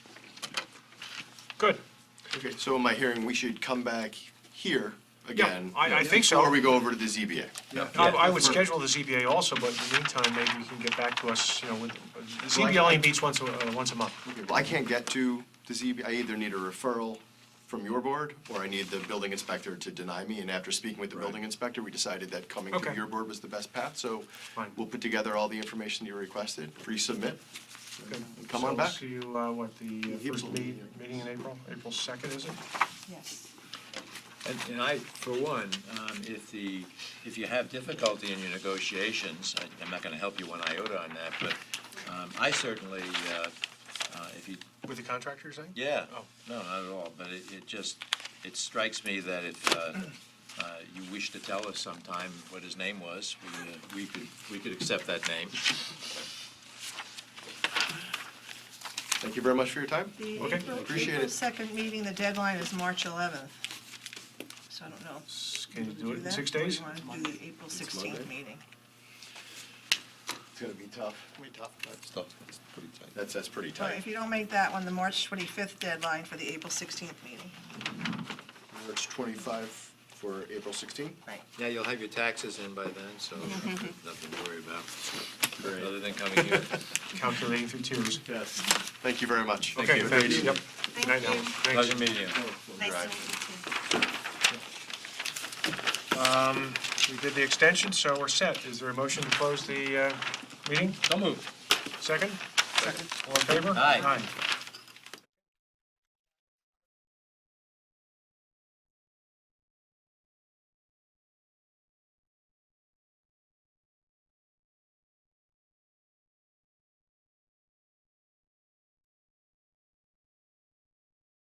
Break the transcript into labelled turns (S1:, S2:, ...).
S1: Good.
S2: Okay, so in my hearing, we should come back here again?
S1: I- I think so.
S2: Before we go over to the ZBA?
S1: I I would schedule the ZBA also, but in the meantime, maybe you can get back to us, you know, with, the ZBA only meets once, a- uh, once a month.
S2: Okay, Well, I can't get to the ZBA, I either need a referral from your board, or I need the building inspector to deny me, and after speaking with the building inspector, we decided that coming through
S1: Okay.
S2: your board was the best path, so
S1: Fine.
S2: we'll put together all the information you requested, pre-submit,
S1: Good.
S2: and come
S1: So
S2: on
S1: we'll
S2: back.
S1: See you, uh, what, the uh,
S2: Give us
S1: first
S2: a little
S1: meeting, meeting in April, April 2nd, is it?
S3: Yes.
S4: And, and I, for one, um, if the, if you have difficulty in your negotiations, I- I'm not gonna help you one iota on that, but, um, I certainly, uh, uh, if you,
S1: With the contractor, you're saying?
S4: yeah,
S1: Oh.
S4: no, not at all, but it, it just, it strikes me that if, uh, uh, you wish to tell us sometime what his name was, we, uh, we could, we could accept that name.
S2: Thank you very much for your time.
S3: The
S1: Okay,
S3: April-
S2: appreciate
S3: April
S2: it.
S3: second meeting, the deadline is March eleventh. So I don't know.
S1: S- Can you
S3: Wanna
S1: do it in
S3: that,
S1: six
S3: or
S1: days?
S3: you want to do the April sixteenth
S2: Monday.
S3: meeting?
S2: It's gonna be tough. tough.
S4: Stuff that's pretty tight.
S2: That's, that's pretty
S3: Well, if
S2: tight.
S3: you don't make that one, the March twenty-fifth deadline for the April sixteenth meeting.
S2: March twenty-five for April sixteen?
S3: Right.
S4: Yeah, you'll have your taxes in by then, so nothing to worry about, other
S2: Great.
S4: than coming here.
S1: Calculating through tears.
S2: Yes, thank you very much.
S1: Okay,
S4: you.
S1: thanks. Yep. Good night now.
S3: Thank you.
S1: Thanks.
S4: Pleasure meeting you.
S3: Nice to
S2: Drive.
S3: meet you.
S1: Um, We did the extension, so we're set. Is there a motion to close the uh, meeting?
S4: Don't move.
S1: Second? Second. All in favor?
S4: Aye.
S1: Aye.